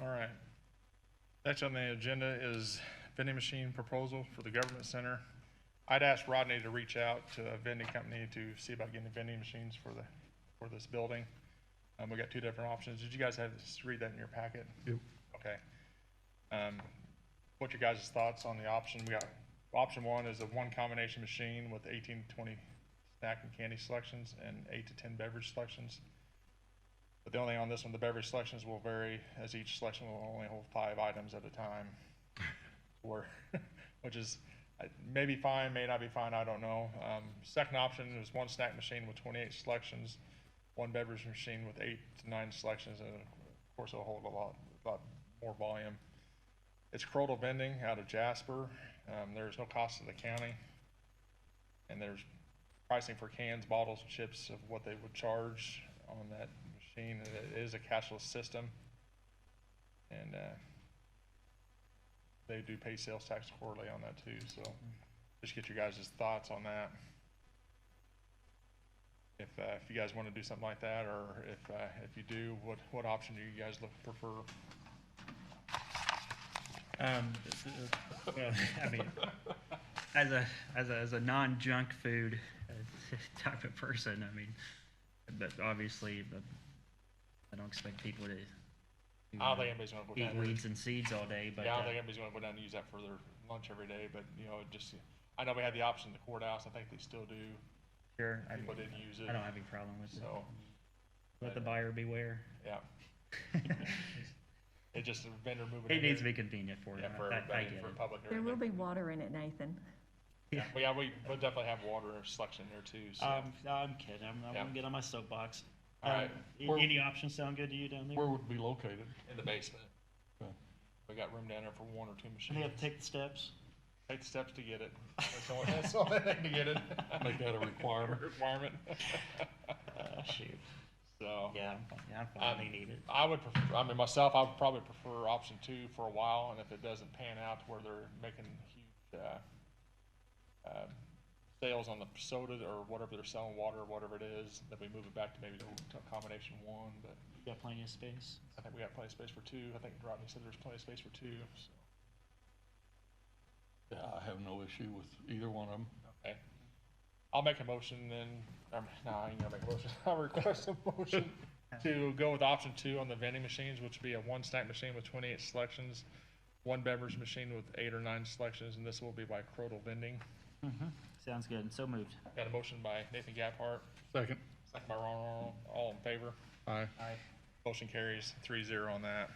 All right. Next on the agenda is vending machine proposal for the government center. I'd asked Rodney to reach out to a vending company to see about getting vending machines for the, for this building. Um, we got two different options. Did you guys have, read that in your packet? Yep. Okay. Um, what your guys' thoughts on the option? We got, option one is a one combination machine with eighteen to twenty snack and candy selections and eight to ten beverage selections. But the only thing on this one, the beverage selections will vary as each selection will only hold five items at a time. Or, which is, uh, may be fine, may not be fine, I don't know. Um, second option is one snack machine with twenty-eight selections, one beverage machine with eight to nine selections, and of course it'll hold a lot, lot more volume. It's Crotal Vending out of Jasper. Um, there's no cost to the county. And there's pricing for cans, bottles, and chips of what they would charge on that machine. And It is a cashless system. And, uh, they do pay sales tax quarterly on that too, so just get your guys' thoughts on that. If, uh, if you guys wanna do something like that, or if, uh, if you do, what, what option do you guys look, prefer? Um, well, I mean, as a as a, as a non junk food uh, type of person, I mean, but obviously, but I don't expect people to. to, I uh, don't think anybody's gonna go eat down there. weeds and seeds all day, but Yeah, I don't uh, think anybody's gonna go down and use that for their lunch every day, but, you know, it just, I know we had the option in the courthouse, I think they still do, sure, I, people didn't use I don't it, have any problem with it. so, Let the buyer beware. yeah. It just, a vendor moving in It needs to there. be convenient for Yeah, them. for I, I everybody, get for it. public. There will everything. be water in it, Nathan. Yeah, well, yeah, we, we'll definitely have water selection there too, so. Um, I'm, I'm kidding. I'm, I'm Yeah. gonna get on my soapbox. All Um, right. a- We're- Any options sound good to you down there? Where would it be located? In the basement. Okay. We got room down there for one or two Do they machines. have to take the steps? Take the steps to get it. That's the only, that's the only thing to get it. Make that a requirement. Requirement. Uh, shoot. So, Yeah, I'm fine. Yeah, I'm fine. Um, They need it. I would prefer, I mean, myself, I would probably prefer option two for a while, and if it doesn't pan out to where they're making huge, uh, um, sales on the soda or whatever they're selling, water, whatever it is, then we move it back to maybe to combination one, but You got plenty of space. I think we got plenty of space for two. I think Rodney said there's plenty of space for two, so. Yeah, I have no issue with either one of them. Okay. I'll make a motion then, um, no, I ain't gonna make a motion. I'll request a motion to go with option two on the vending machines, which would be a one snack machine with twenty-eight selections, one beverage machine with eight or nine selections, and this will be by Crotal Vending. Mm-hmm. Sounds good. So moved. Got a motion by Nathan Gaphart, Second. second by Ron Aron. all in favor? Aye. Aye. Motion carries three zero on that.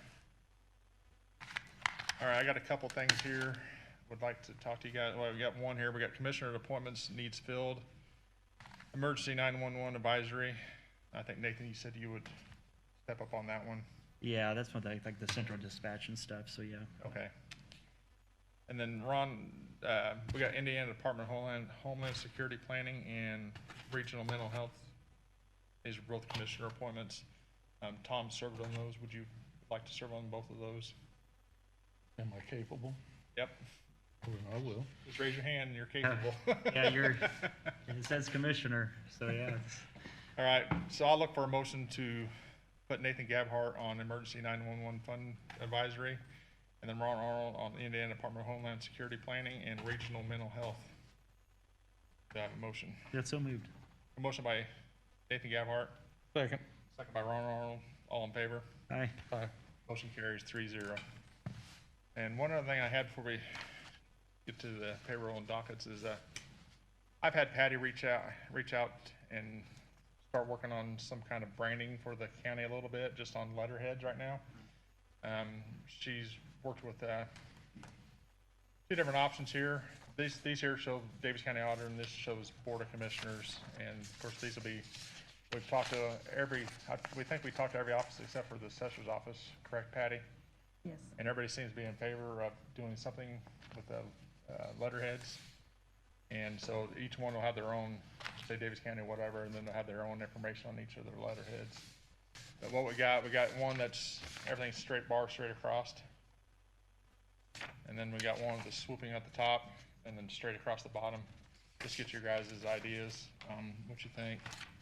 All right, I got a couple things here. Would like to talk to you guys. Well, we got one here. We got commissioner appointments needs filled. Emergency nine-one-one advisory. I think Nathan, you said you would step up on that one. Yeah, that's what they like the central dispatch and stuff. So yeah. Okay. And then Ron, uh, we got Indiana Department of Homeland, Homeland Security Planning and Regional Mental Health. These are both commissioner appointments. Um, Tom served on those. Would you like to serve on both of those? Am I capable? Yep. Well, I will. Just raise your hand and you're capable. Yeah, you're. It says commissioner, so yeah. it's- All right, so I'll look for a motion to put Nathan Gabhart on Emergency 911 Fund Advisory, and then Ron Arnold on Indiana Department of Homeland Security Planning and Regional Mental Health. Do I have a motion? Yeah, so moved. A motion by Nathan Gabhart, Second. second by Ron Arnold, all in favor? Aye. Aye. Motion carries three zero. And one other thing I had before we get to the payroll and dockets is, uh, I've had Patty reach out, reach out and start working on some kind of branding for the county a little bit, just on letterheads right now. Um, she's worked with, uh, two different options here. These, these here show Davis County Auditor and this shows Board of Commissioners. And of course, these will be, we've talked to every, I- we think we talked to every office except for the assessor's office, correct Patty? Yes. And everybody seems to be in favor of doing something with the uh, letterheads. And so each one will have their own, say Davis County, whatever, and then they'll have their own information on each of their letterheads. But what we got, we got one that's, everything's straight bar, straight across. And then we got one with the swooping at the top and then straight across the bottom. Just get your guys' ideas, um, what you think.